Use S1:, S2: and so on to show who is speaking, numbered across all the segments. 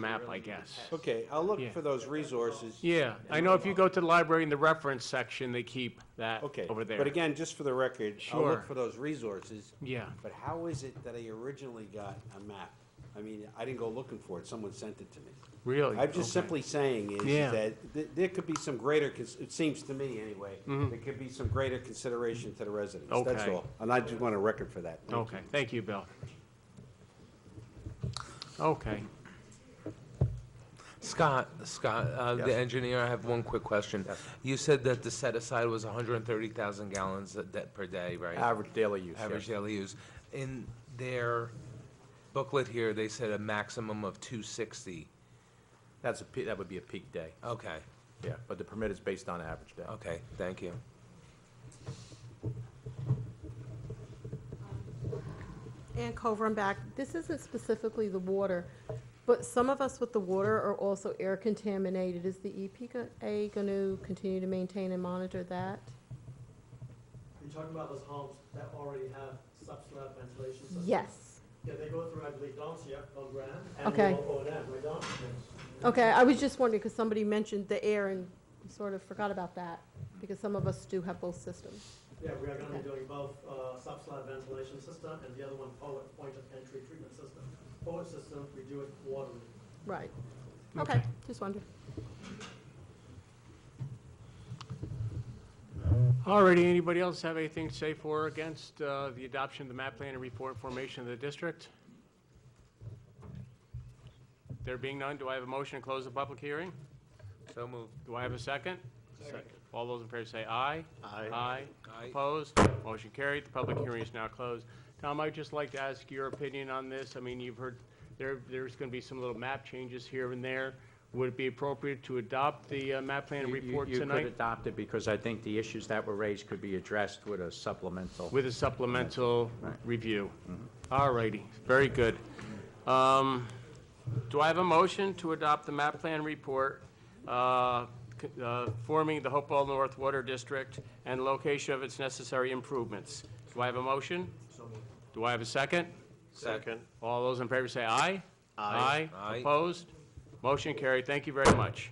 S1: map, I guess.
S2: Okay, I'll look
S1: Yeah.
S2: for those resources.
S1: Yeah, I know if you go to the library in the reference section, they keep that
S2: Okay,
S1: over there.
S2: but again, just for the record, I'll
S1: Sure.
S2: look for those resources.
S1: Yeah,
S2: But how is it that I originally got a map? I mean, I didn't go looking for it, someone sent it to me.
S1: really.
S2: I'm just
S1: okay.
S2: simply saying is
S1: Yeah.
S2: that th- there could be some greater, cons- it seems to me anyway, there could be some greater consideration to the residents, that's
S1: Mm-hmm. Okay.
S2: all. And I just want a record for that. Thank you.
S1: Okay, thank you, Bill. Okay,
S3: Scott, Scott, uh, the engineer, I have one quick question. You said that the set aside was 130,000 gallons a- that per day, right?
S4: Average daily use,
S3: Average
S4: yes.
S3: daily use. In their booklet here, they said a maximum of 260.
S4: That's a, pe- that would be a peak day,
S3: Okay,
S4: yeah, but the permit is based on average day.
S3: okay, thank you.
S5: Ann Culver, I'm back. This isn't specifically the water, but some of us with the water are also air contaminated. Is the E EPA going to continue to maintain and monitor that?
S6: You're talking about those homes that already have sub-slab ventilation systems?
S5: Yes.
S6: Yeah, they go through, I believe, Donsia, Don Graham,
S5: Okay.
S6: and O and M, right, Don?
S5: Okay, I was just wondering, because somebody mentioned the air and we sort of forgot about that, because some of us do have both systems.
S6: Yeah, we are gonna be
S5: Okay.
S6: doing both, uh, sub-slab ventilation system and the other one, poet, point of entry treatment system. Poet system, we do it quarterly.
S5: Right. Okay,
S1: Okay.
S5: just wondered.
S1: all righty, anybody else have anything to say for or against uh, the adoption of the map plan and report formation of the district? There being none, do I have a motion to close the public hearing?
S3: So moved.
S1: Do I have a second? Second. All those in favor say aye. Aye.
S3: Aye.
S1: Opposed? Motion carried. The public hearing is now closed. Tom, I'd just like to ask your opinion on this. I mean, you've heard, there, there's going to be some little map changes here and there. Would it be appropriate to adopt the uh, map plan and
S7: You- you-
S1: report
S7: You could
S1: tonight
S7: adopt it because I think the issues that were raised could be addressed with a supplemental.
S1: with a supplemental review? All righty, very good. Um, Do I have a motion to adopt the map plan report uh, c- uh, forming the Hopewell North Water District and location of its necessary improvements? Do I have a motion? Do I have a second?
S3: Second.
S1: All those in favor say aye. Aye.
S3: Aye.
S1: Opposed? Motion carried. Thank you very much.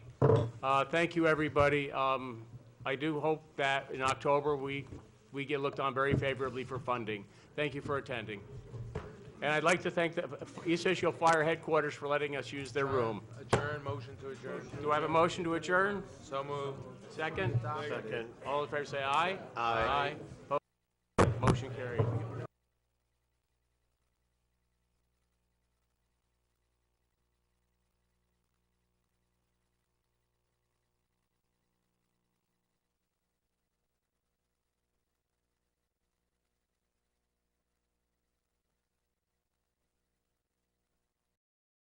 S1: Uh, Thank you, everybody. Um, I do hope that in October, we, we get looked on very favorably for funding. Thank you for attending. And I'd like to thank the East Fishkill Fire Headquarters for letting us use their room.
S3: Adjourn, motion to adjourn.
S1: Do I have a motion to adjourn?
S3: So moved.
S1: Second? Second. All in favor say aye. Aye. Opposed? Motion carried.